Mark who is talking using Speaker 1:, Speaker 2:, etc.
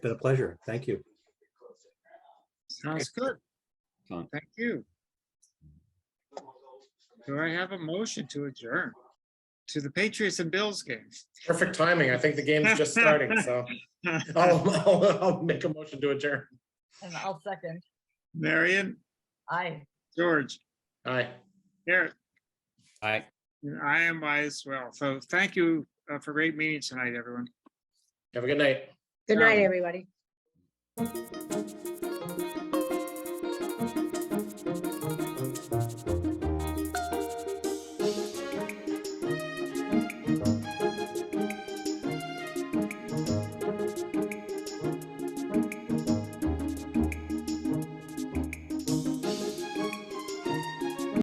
Speaker 1: Been a pleasure. Thank you.
Speaker 2: Sounds good.
Speaker 3: Fine.
Speaker 2: Thank you. Do I have a motion to adjourn to the Patriots and Bills game?
Speaker 4: Perfect timing. I think the game's just starting, so I'll, I'll, I'll make a motion to adjourn.
Speaker 5: And I'll second.
Speaker 2: Marion,
Speaker 5: Aye.
Speaker 2: George,
Speaker 4: Aye.
Speaker 2: Eric,
Speaker 3: All right.
Speaker 2: and I am I as well. So thank you uh, for a great meeting tonight, everyone.
Speaker 4: Have a good night.
Speaker 6: Good
Speaker 2: Um,
Speaker 6: night, everybody.